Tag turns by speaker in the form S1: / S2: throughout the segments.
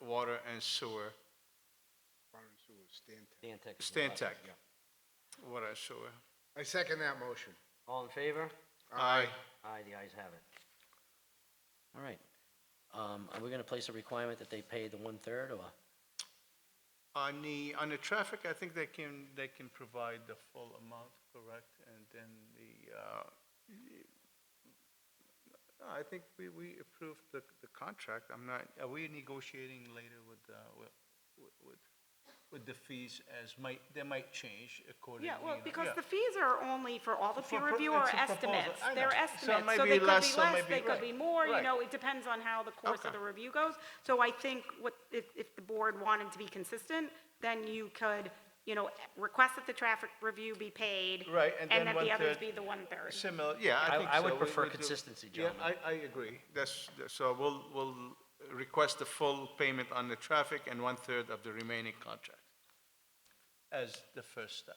S1: Water and Sewer,
S2: Water and sewer, Stantec.
S3: Stantec. is the
S1: Stantec.
S3: project.
S1: Water and Sewer.
S2: I second that motion.
S3: All in favor?
S1: Aye.
S3: Aye, the ayes have it. All right. Um, Are we going to place a requirement that they pay the one-third, or?
S1: On the, on the traffic, I think they can, they can provide the full amount, correct? And then the, uh, I think we, we approved the, the contract. I'm not, are we negotiating later with, uh, with, with, with the fees as might, they might change accordingly?
S4: Yeah, well,
S1: uh,
S4: because
S1: yeah.
S4: the fees are only for all the
S1: For
S4: peer
S1: pro-
S4: review are
S1: it's a proposal.
S4: estimates.
S1: I know.
S4: They're
S1: So it
S4: estimates,
S1: might
S4: so
S1: be
S4: they could be
S1: less, so it
S4: less,
S1: might be
S4: they could
S1: right.
S4: be more, you
S1: Right.
S4: know, it depends on how the course of
S1: Okay.
S4: the review goes. So I think what, if, if the board wanted to be consistent, then you could, you know, request that the traffic review be paid.
S1: Right, and then
S4: And that the others
S1: one-third-
S4: be the one-third.
S1: Similar, yeah, I
S3: I-
S1: think
S3: I
S1: so.
S3: would
S1: We-
S3: prefer
S1: we do-
S3: consistency,
S1: Yeah, I,
S3: gentlemen.
S1: I agree. That's, that's- so we'll, we'll request the full payment on the traffic and one-third of the remaining contract as the first step.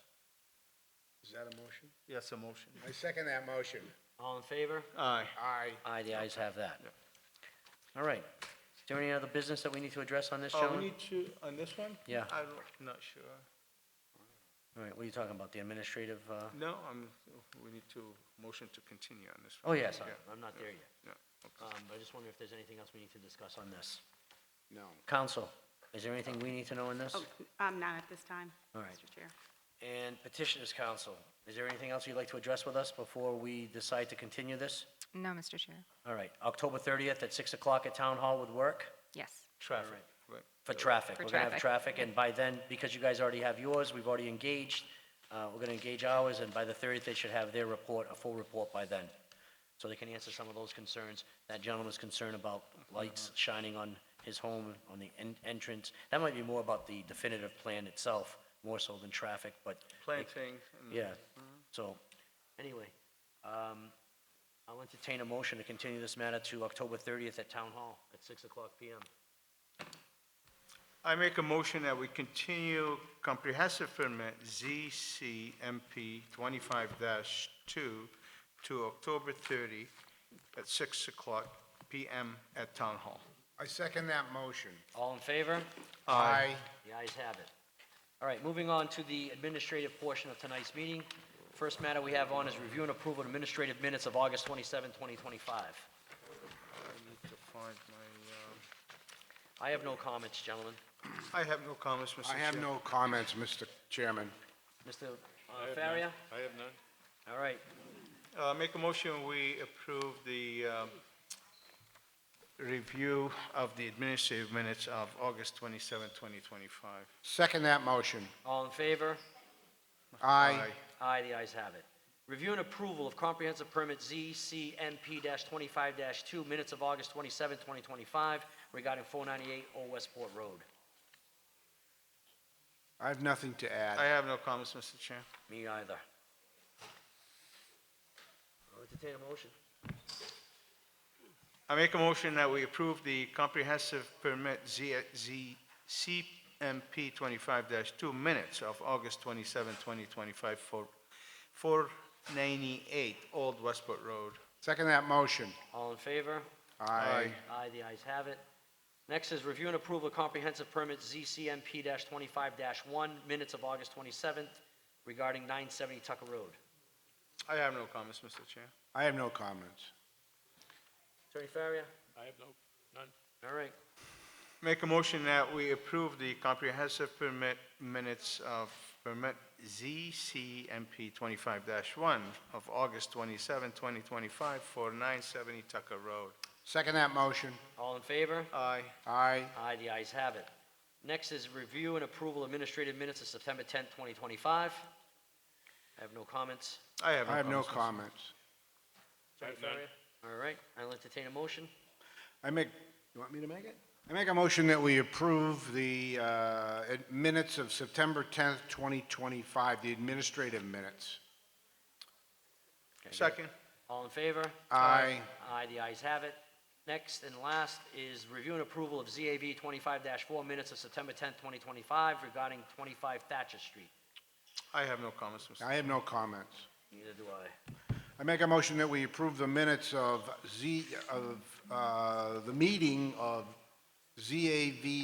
S2: Is that a motion?
S1: Yes, a motion.
S2: I second that motion.
S3: All in favor?
S1: Aye.
S2: Aye.
S3: Aye, the ayes have that. All right. Is there any other business that we need to address on this,
S1: Oh, we
S3: gentlemen?
S1: need to, on this one?
S3: Yeah.
S1: I'm not sure.
S3: All right, what are you talking about, the administrative, uh,
S1: No, I'm, we need to, motion to continue on this
S3: oh,
S1: one.
S3: yes, I'm not there yet.
S1: Yeah, okay.
S3: Um, I just wonder if there's anything else we need to discuss on this.
S2: No.
S3: Counsel, is there anything we need to know on this?
S4: Um, not at this time,
S3: All right.
S4: Mr. Chair.
S3: And petitioners' counsel, is there anything else you'd like to address with us before we decide to continue this?
S5: No, Mr. Chair.
S3: All right, October 30th at 6 o'clock at Town Hall would work
S5: Yes.
S1: Traffic, right.
S3: for traffic.
S5: For
S3: We're going to have
S5: traffic.
S3: traffic, and by then, because you guys already have yours, we've already engaged, uh, we're going to engage ours, and by the 30th, they should have their report, a full report by then. So they can answer some of those concerns. That gentleman's concern about lights shining on his home, on the en- entrance. That might be more about the definitive plan itself, more so than traffic, but
S1: Planting. and-
S3: yeah, so, anyway, um, I'll entertain a motion to continue this matter to October 30th at Town Hall at 6 o'clock PM.
S1: I make a motion that we continue comprehensive permit ZCMP 25-2 to October 30 at 6 o'clock PM at Town Hall.
S2: I second that motion.
S3: All in favor?
S2: Aye.
S3: The ayes have it. All right, moving on to the administrative portion of tonight's meeting. First matter we have on is review and approval of administrative minutes of August 27, 2025.
S1: I need to find my,
S3: I have no comments, gentlemen.
S1: uh, I have no comments, Mr.
S2: I have
S1: Chair.
S2: no comments, Mr. Chairman.
S3: Mr. uh, Faria?
S6: I have none.
S3: All right,
S1: Uh, Make a motion, we approve the um, review of the administrative minutes of August 27, 2025.
S2: Second that motion.
S3: all in favor?
S2: Aye.
S3: Aye, the ayes have it. Review and approval of comprehensive permit ZCNP-25-2, minutes of August 27, 2025, regarding 498 Old Westport Road.
S2: I have nothing to add.
S1: I have no comments, Mr. Chair.
S3: Me either. I'll entertain a motion.
S1: I make a motion that we approve the comprehensive permit Z- ZCMP 25-2 minutes of August 27, 2025 for 498 Old Westport Road.
S2: Second that motion.
S3: All in favor?
S2: Aye.
S3: Aye, the ayes have it. Next is review and approval of comprehensive permit ZCMP-25-1, minutes of August 27th, regarding 970 Tucker Road.
S1: I have no comments, Mr. Chair.
S2: I have no comments.
S3: Attorney Faria?
S6: I have no, none.
S3: All right.
S1: Make a motion that we approve the comprehensive permit minutes of permit ZCMP 25-1 of August 27, 2025 for 970 Tucker Road.
S2: Second that motion.
S3: All in favor?
S1: Aye.
S2: Aye.
S3: Aye, the ayes have it. Next is review and approval of administrative minutes of September 10th, 2025. I have no comments.
S1: I have no comments.
S2: I have no
S1: Mr. Chair.
S2: comments.
S6: I have none.
S3: All right, I'll entertain a motion.
S2: I make, you want me to make it? I make a motion that we approve the uh, ad- minutes of September 10th, 2025, the administrative minutes.
S1: Second.
S3: All in favor?
S2: Aye.
S3: Aye, the ayes have it. Next and last is review and approval of ZAV 25-4 minutes of September 10th, 2025 regarding 25 Thatcher Street.
S1: I have no comments, Mr. Chair.
S2: I have no comments.
S3: Neither do I.
S2: I make a motion that we approve the minutes of Z, of uh, the meeting of ZAV